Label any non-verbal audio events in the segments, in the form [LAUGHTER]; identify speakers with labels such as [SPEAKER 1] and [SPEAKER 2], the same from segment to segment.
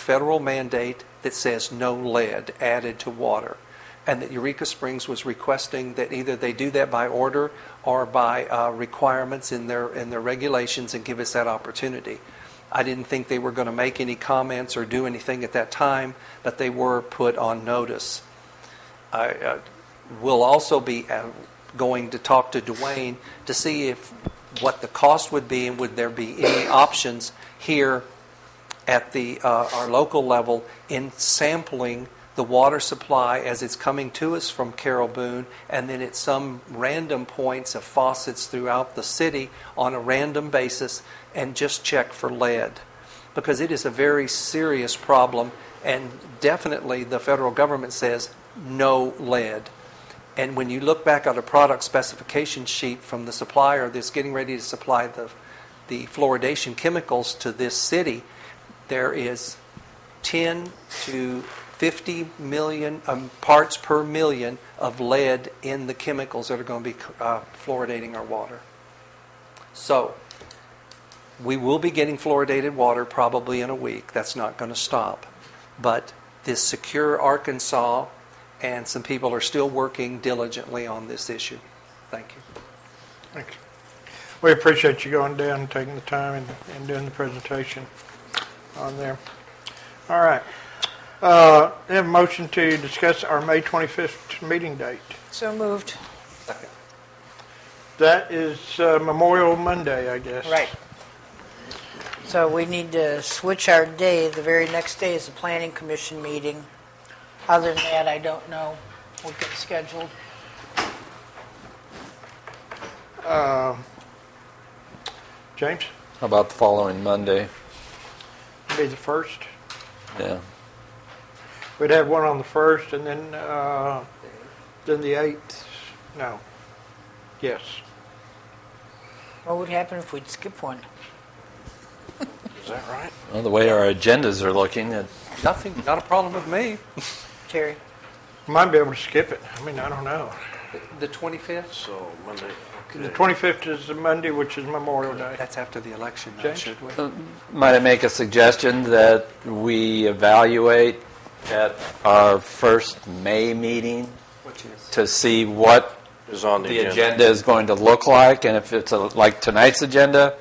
[SPEAKER 1] federal mandate that says no lead added to water, and that Eureka Springs was requesting that either they do that by order or by uh, requirements in their, in their regulations and give us that opportunity. I didn't think they were going to make any comments or do anything at that time, but they were put on notice. I uh, will also be uh, going to talk to Dwayne to see if, what the cost would be and would there be any options here at the, uh, our local level in sampling the water supply as it's coming to us from Carol Boone, and then at some random points of faucets throughout the city on a random basis, and just check for lead. Because it is a very serious problem, and definitely the federal government says no lead. And when you look back at a product specification sheet from the supplier that's getting ready to supply the, the fluoridation chemicals to this city, there is 10 to 50 million um, parts per million of lead in the chemicals that are going to be uh, fluoridating our water. So, we will be getting fluoridated water probably in a week. That's not going to stop. But this Secure Arkansas and some people are still working diligently on this issue. Thank you.
[SPEAKER 2] Thank you. We appreciate you going down and taking the time and- and doing the presentation on there. All right. Uh, we Have a motion to discuss our May 25th meeting date.
[SPEAKER 3] So moved.
[SPEAKER 1] Second.
[SPEAKER 2] That is uh, Memorial Monday, I guess.
[SPEAKER 3] Right. So we need to switch our day. The very next day is the planning commission meeting. Other than that, I don't know. We'll get scheduled.
[SPEAKER 2] James,
[SPEAKER 4] How about the following Monday?
[SPEAKER 2] be the first.
[SPEAKER 4] Yeah.
[SPEAKER 2] We'd have one on the first and then, uh, then the 8th. No. Yes.
[SPEAKER 3] What would happen if we'd skip one?
[SPEAKER 2] Is that right?
[SPEAKER 4] Well, the way our agendas are looking, it,
[SPEAKER 1] Nothing, not a problem with me.
[SPEAKER 3] Terry?
[SPEAKER 2] Might be able to skip it. I mean, I don't know.
[SPEAKER 1] The 25th?
[SPEAKER 5] So Monday,
[SPEAKER 2] The
[SPEAKER 5] okay.
[SPEAKER 2] 25th is the Monday, which is Memorial Day.
[SPEAKER 1] That's after the election, though,
[SPEAKER 2] James?
[SPEAKER 1] should we?
[SPEAKER 4] might I make a suggestion that we evaluate at our first May meeting
[SPEAKER 1] Which is?
[SPEAKER 4] to see what
[SPEAKER 5] Is on
[SPEAKER 4] the agenda is going to look like, and if it's a, like tonight's agenda,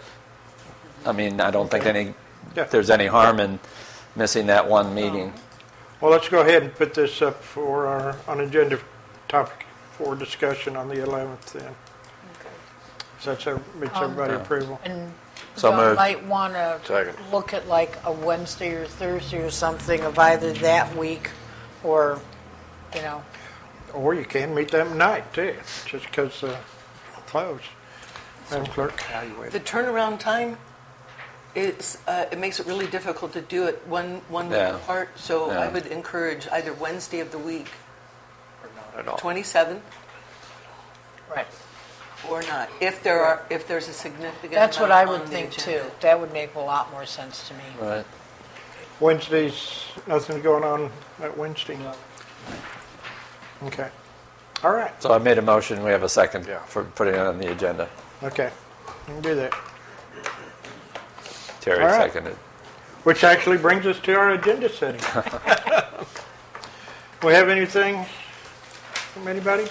[SPEAKER 4] I mean, I don't think any,
[SPEAKER 2] Yeah.
[SPEAKER 4] there's any harm in missing that one meeting.
[SPEAKER 2] Well, let's go ahead and put this up for our, on agenda topic for discussion on the 11th then. So that's, ev- meets everybody approval.
[SPEAKER 3] And
[SPEAKER 4] So
[SPEAKER 3] y'all
[SPEAKER 4] moved.
[SPEAKER 3] might want to
[SPEAKER 5] Second.
[SPEAKER 3] look at like a Wednesday or Thursday or something of either that week or, you know,
[SPEAKER 2] Or you can meet them night too, just because, uh, closed. Madam Clerk?
[SPEAKER 6] The turnaround time is, uh, it makes it really difficult to do it one, one week
[SPEAKER 4] Yeah.
[SPEAKER 6] apart. So I
[SPEAKER 4] Yeah.
[SPEAKER 6] would encourage either Wednesday of the week,
[SPEAKER 1] At all.
[SPEAKER 6] 27th,
[SPEAKER 3] right.
[SPEAKER 6] or not, if there are, if there's a significant
[SPEAKER 3] That's what I
[SPEAKER 6] amount
[SPEAKER 3] would
[SPEAKER 6] on the
[SPEAKER 3] think too.
[SPEAKER 6] agenda.
[SPEAKER 3] That would make a lot more sense to me.
[SPEAKER 4] Right.
[SPEAKER 2] Wednesday's, nothing's going on at Wednesday? Okay. All right,
[SPEAKER 4] So I made a motion, we have a second
[SPEAKER 5] Yeah.
[SPEAKER 4] for putting it on the agenda.
[SPEAKER 2] okay. We Can do that.
[SPEAKER 4] Terry
[SPEAKER 2] All right.
[SPEAKER 4] seconded.
[SPEAKER 2] Which actually brings us to our
[SPEAKER 1] [LAUGHS]
[SPEAKER 2] agenda setting. We have anything from anybody?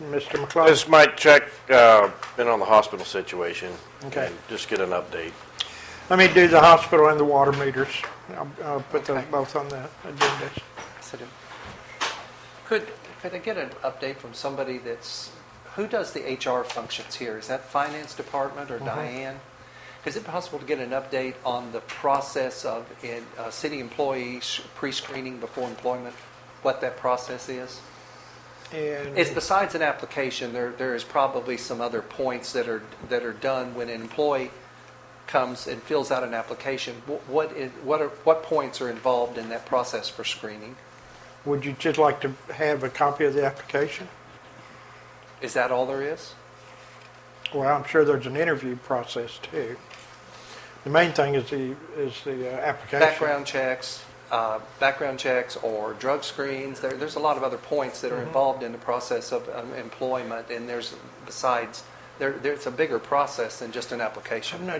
[SPEAKER 2] Mr. McClung?
[SPEAKER 5] Just might check, uh, been on the hospital situation.
[SPEAKER 2] Okay.
[SPEAKER 5] and Just get an update.
[SPEAKER 2] Let me do the hospital and the water meters. I'll, I'll put those both on the agenda.
[SPEAKER 1] Could, could I get an update from somebody that's, who does the HR functions here? Is that finance department or Diane? Is it possible to get an update on the process of in, uh, city employees pre-screening before employment? What that process is? It's
[SPEAKER 2] And,
[SPEAKER 1] besides an application, there, there is probably some other points that are, that are done when an employee comes and fills out an application. Wh- What, is- what, are, what points are involved in that process for screening?
[SPEAKER 2] would you just like to have a copy of the application?
[SPEAKER 1] Is that all there is?
[SPEAKER 2] Well, I'm sure there's an interview process too. The main thing is the, is the uh, application.
[SPEAKER 1] Background checks, uh, background checks or drug screens, there, there's a lot of other points that are involved in the process of um, employment, and there's, besides, there, there's a bigger process than just an application.
[SPEAKER 2] I'm not